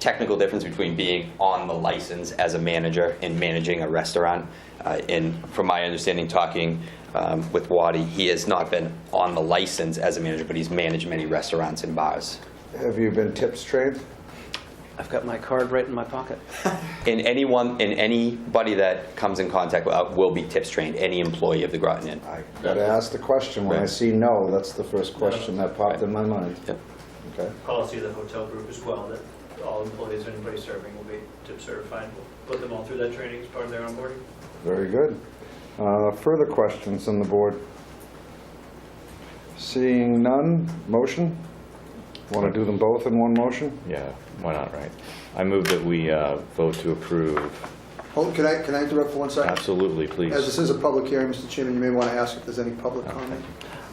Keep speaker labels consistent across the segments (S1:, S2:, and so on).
S1: technical difference between being on the license as a manager and managing a restaurant. Uh, And from my understanding, talking um, with Wadi, he has not been on the license as a manager, but he's managed many restaurants and bars.
S2: Have you been tips trained?
S3: I've got my card right in my pocket.
S1: And anyone, and anybody that comes in contact with- uh, will be tips trained, any employee of the Groton Inn.
S2: I gotta ask the question. When I
S1: Right.
S2: see no, that's the first question that popped in my mind.
S1: Yep.
S2: Okay.
S4: policy of the hotel group as well, that all employees, anybody serving will be tip certified. We'll Put them all through that training as part of their onboarding.
S2: Very good. Uh, Further questions on the board? Seeing none, motion? Want to do them both in one motion?
S5: Yeah, why not, right? I move that we uh, vote to approve,
S6: Hold, Oh, can I, can I interrupt for one second?
S5: absolutely,
S6: As this
S5: please.
S6: is a public hearing, Mr. Chairman, you may want to ask if there's any public comment.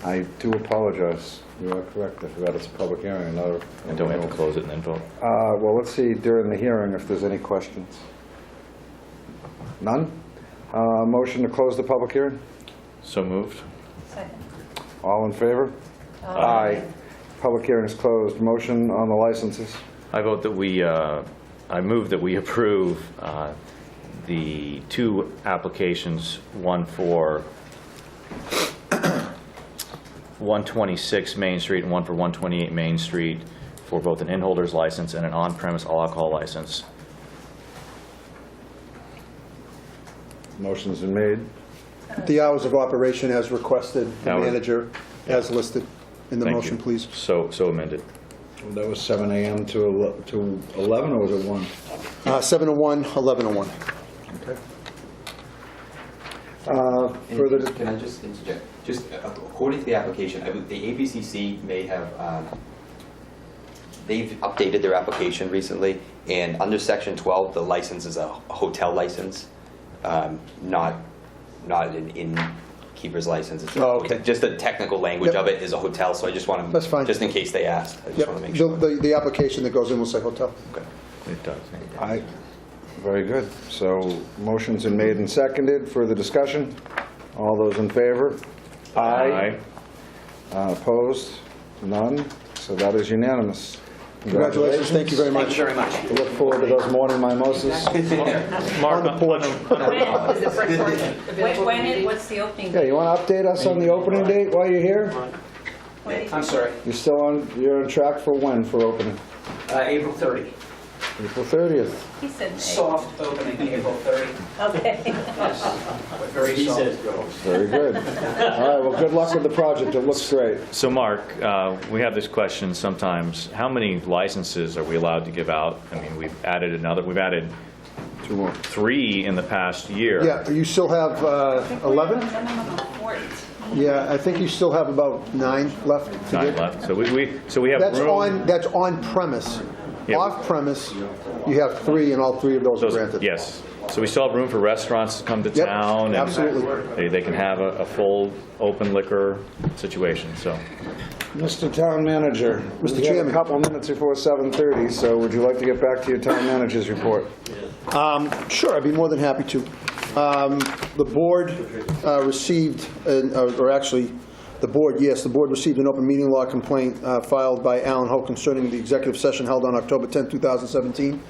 S2: I do apologize. You are correct. I forgot it's a public hearing. Another.
S5: And don't we have to close it and then vote?
S2: Uh, Well, let's see during the hearing if there's any questions. None? Uh, Motion to close the public hearing?
S5: So moved?
S7: Second.
S2: All in favor? Aye. Public hearing is closed. Motion on the licenses.
S5: I vote that we, uh, I move that we approve uh, the two applications, one for 126 Main Street and one for 128 Main Street, for both an in-holders license and an on-premise all alcohol license.
S2: Motion's been made.
S6: The hours of operation as requested, the
S5: Hours.
S6: manager as listed in the
S5: Thank you.
S6: motion, please.
S5: So so amended.
S2: That was 7 AM to ele- to 11, or was it 1?
S6: Uh, 701, 1101.
S2: Uh, Further, dis-
S1: Can I just interject? Just uh, according to the application, I would- the ABCC may have, um, they've updated their application recently, and under Section 12, the license is a hotel license, um, not, not an innkeeper's license. It's a-
S6: Oh, okay.
S1: Just the technical language
S6: Yep.
S1: of it is a hotel, so I just want to.
S6: That's fine.
S1: Just in case they asked, I just
S6: Yep,
S1: want to make
S6: the,
S1: sure.
S6: the- the application that goes in will say hotel.
S5: It does.
S2: I, very good. So motion's been made and seconded. Further discussion? All those in favor?
S5: Aye.
S2: Uh, Opposed? None? So that is unanimous.
S6: Congratulations, thank you very
S3: Thank you
S6: much.
S3: very much.
S2: I Look forward to those morning mimosas.
S5: Mark, on- on a- on a-
S7: When, when is, what's the opening?
S2: Yeah, you want to update us on the opening date while you're here?
S7: When is-
S3: I'm sorry,
S2: You're still on, you're on track for when for opening?
S3: uh, April 30.
S2: April 30th.
S7: He said May.
S3: Soft opening, April 30,
S7: Okay.
S3: but very soft.
S2: Very good. All right, well, good luck with the project. It looks great.
S5: So, Mark, uh, we have this question sometimes, how many licenses are we allowed to give out? I mean, we've added another, we've added
S2: Two more.
S5: three in the past year.
S6: Yeah, you still have uh, 11?
S7: No, no, no, no, fourteen.
S6: Yeah, I think you still have about nine left to
S5: Nine
S6: get.
S5: left. So we- we, so we have
S6: That's
S5: room.
S6: on, that's on premise.
S5: Yeah.
S6: Off premise, you have three, and all three of those are
S5: those-
S6: granted.
S5: Yes. So we still have room for restaurants to come to
S6: Yep,
S5: town. and
S6: absolutely.
S5: They, they can have a, a full open liquor situation, so.
S2: Mr. Town Manager.
S6: Mr.
S2: We have a
S6: Chairman.
S2: couple minutes before 7:30, so would you like to get back to your town manager's report?
S6: Sure, I'd be more than happy to. Um, The board uh, received, an- uh, or actually, the board, yes, the board received an open meeting law complaint uh, filed by Alan Ho concerning the executive session held on October 10, 2017.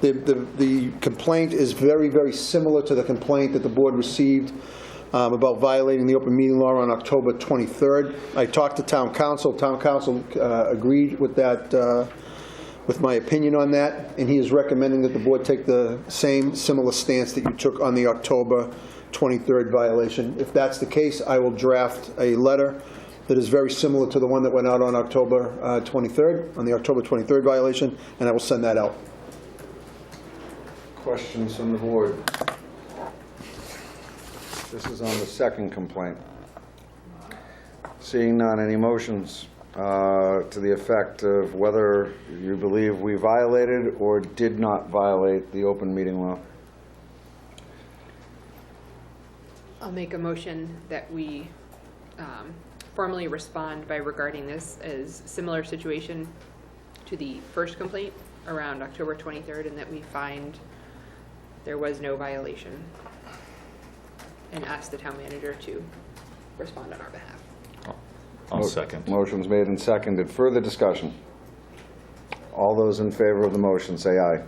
S6: The- The the complaint is very, very similar to the complaint that the board received um, about violating the open meeting law on October 23rd. I talked to town council. Town council uh, agreed with that uh, with my opinion on that, and he is recommending that the board take the same similar stance that you took on the October 23rd violation. If that's the case, I will draft a letter that is very similar to the one that went out on October uh, 23rd, on the October 23rd violation, and I will send that out.
S2: Questions from the board? This is on the second complaint. Seeing none, any motions uh, to the effect of whether you believe we violated or did not violate the open meeting law?
S8: I'll make a motion that we um, formally respond by regarding this as similar situation to the first complaint around October 23rd, and that we find there was no violation, and ask the town manager to respond on our behalf.
S5: I'll second.
S2: Motion's made and seconded. Further discussion? All those in favor of the motion, say aye.